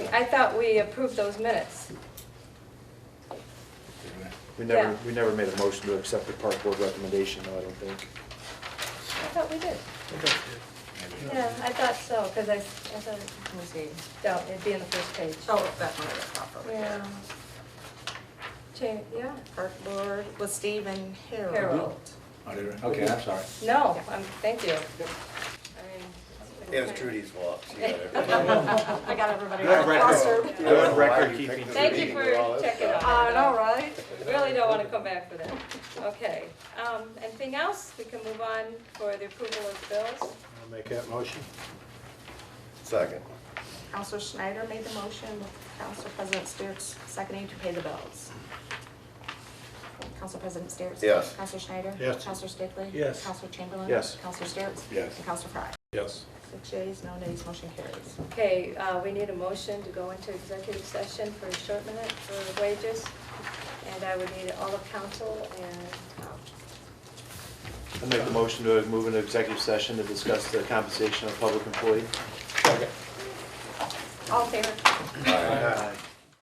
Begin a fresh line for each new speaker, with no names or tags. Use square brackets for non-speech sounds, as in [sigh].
I thought we approved those minutes.
We never,
Yeah.
we never made a motion to accept the park board recommendation, though, I don't think.
I thought we did. Yeah, I thought so, because I, I thought, it-
Let me see.
no, it'd be in the first page.
Oh, that one was properly.
Yeah. Change, yeah,
Park Board was Stephen Harold.
Harold.
Oh, did we? Okay, I'm sorry.
No, I'm, thank you. I mean,
It was Trudy's walk.
[laughs]
She got it.
I got everybody.
Good
Foster.
record. Good record
You
keeping.
picked
Thank
Trudy
you
to
for
do all this
checking
stuff.
on
I know, right?
Really don't want to come back for that. Okay, um, anything else? We can move on for the approval of bills.
I'll make that motion.
Second.
Counselor Schneider made the motion, Counselor President Steeritz seconding to pay the bills. Counselor President Steeritz?
Yes.
Counselor Schneider?
Yes.
Counselor Stickley?
Yes.
Counselor Chamberlain?
Yes.
Counselor Steeritz?
Yes.
And Counselor Frye?
Yes.
Six yeas, no nays, motion carries.
Okay, uh, we need a motion to go into executive session for a short minute for wages. And I would need all of council and, um,
I make the motion to move into executive session to discuss the compensation of public employee.
all in favor?
All right.
Aye.